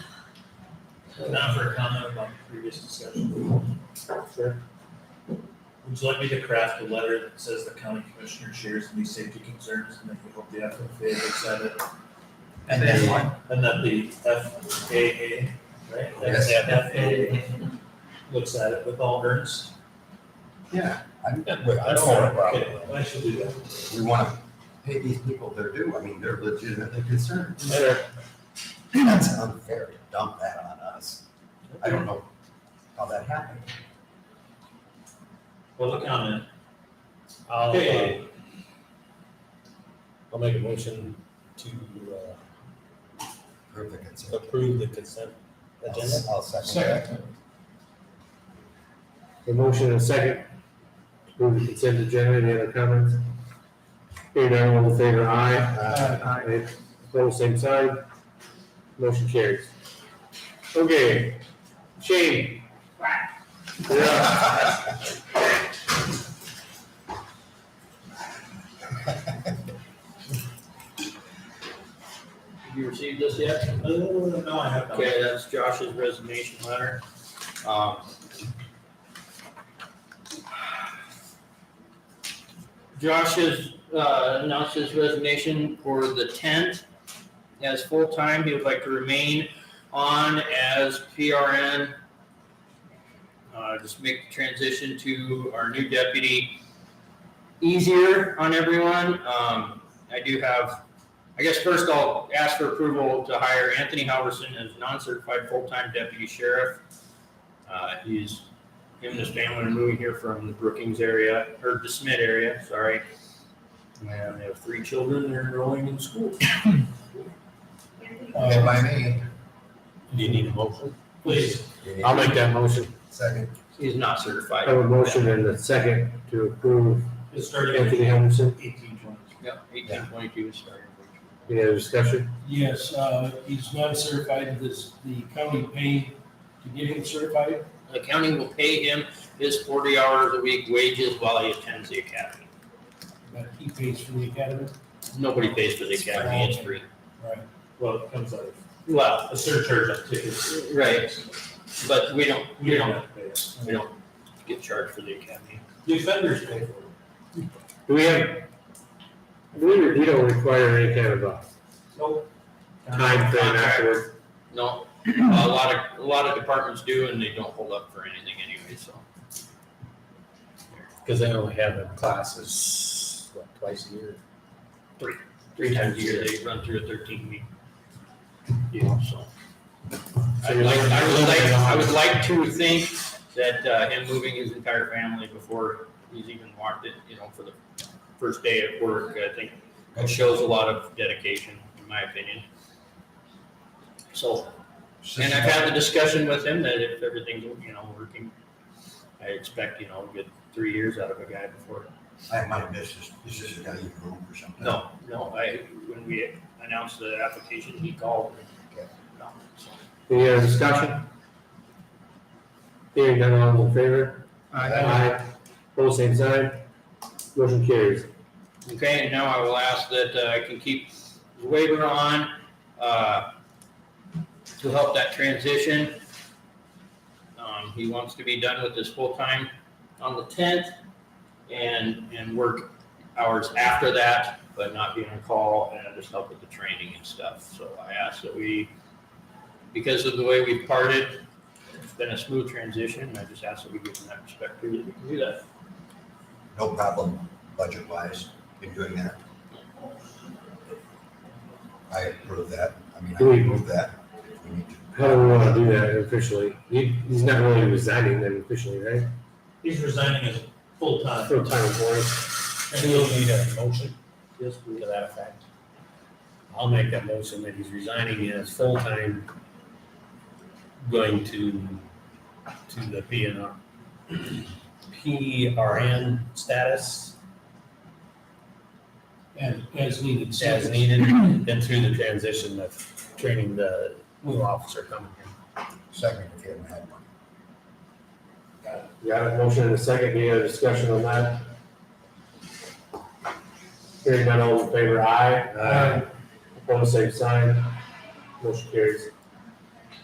Now for a comment about the previous discussion. Sure. Would you like me to craft a letter that says the county commissioner shares these safety concerns and that you hope the FFA looks at it? And then what? And that the FAA, right? Yes. FAA looks at it with all earnest. Yeah, I, I don't That's have a problem. okay, I should do that. We want to pay these people their due. I mean, they're legitimately concerned. Better. That's unfair to dump that on us. I don't know how that happened. Public comment. I'll, uh, Okay. I'll make a motion to Prove the uh, concern. approve the consent agenda. I'll second that. A motion and a second. to Approve the consent agenda. Any other comments? Hearing none, all in favor, aye. Aye. Opposed, same side. Motion carries. Okay, Shane. Yeah, Have you received this yet? Uh, no, I have not. Okay, that's Josh's resignation letter. Um, Josh has, uh, announced his resignation for the tenth as full-time. He would like to remain on as PRN. Uh, just make the transition to our new deputy easier on everyone. Um, I do have I guess first I'll ask for approval to hire Anthony Halverson as non-certified full-time deputy sheriff. Uh, he's, him and his family are moving here from the Brookings area, or the Smith area, sorry. And they have three children, they're enrolling in school. Uh, Okay, by me. Do you need a motion? Please, I'll make that motion. Second. he's not I certified. have a motion and a second to approve It's starting at Anthony Henderson. eighteen twenty. Yep, eighteen twenty-two is starting. Any other discussion? Yes, uh, he's not certified, this, the county paid to get him certified. The county will pay him his forty hours a week wages while he attends the academy. but he pays for the academy. Nobody pays for the academy, it's free. Right. Well, it comes out of Well, a surcharge on tickets. Right. but we don't, we don't have to pay it. We don't get charged for the academy. The offenders pay for it. Do we have, we, we don't require any kind of a Nope. time frame afterward. No, a lot of, a lot of departments do and they don't hold up for anything anyway, so. Because they only have them classes, what, twice a year? Three times a year, they run through a thirteen week. deal. so. I would like, I would like, I would like to think that, uh, him moving his entire family before he's even walked it, you know, for the first day at work, I think it shows a lot of dedication, in my opinion. So, And I've had the discussion with him that if everything's, you know, working, I expect, you know, a good three years out of a guy before. I have my business, this is a guy you grew or something. No, no, I, when we announced the application, he called. Okay. No, so. Any other discussion? Hearing none, all in favor? Aye. Both same sign. Motion carries. Okay, and now I will ask that uh, I can keep the waiver on, uh, to help that transition. Um, he wants to be done with this full-time on the tenth and, and work hours after that, but not be on call and just help with the training and stuff. So I ask that we, because of the way we parted, it's been a smooth transition. I just ask that we give him that respect too, that we can do that. No problem, budget wise, in doing that. I approve that, I mean, I Do we- approve that if we need to. How do we wanna do that officially? He, he's not really resigning then officially, right? He's resigning as full-time. Full-time employee. And we'll need a motion Yes, to that effect. I'll make that motion that he's resigning as full-time, going to, to the PNR, PRN status And as needed. so- as needed, and through the transition of training the new officer coming in. Second, if you haven't had one. Got a motion and a second. Any other discussion on that? Hearing none, all in favor? Aye. Aye. Opposed, same sign. Motion carries.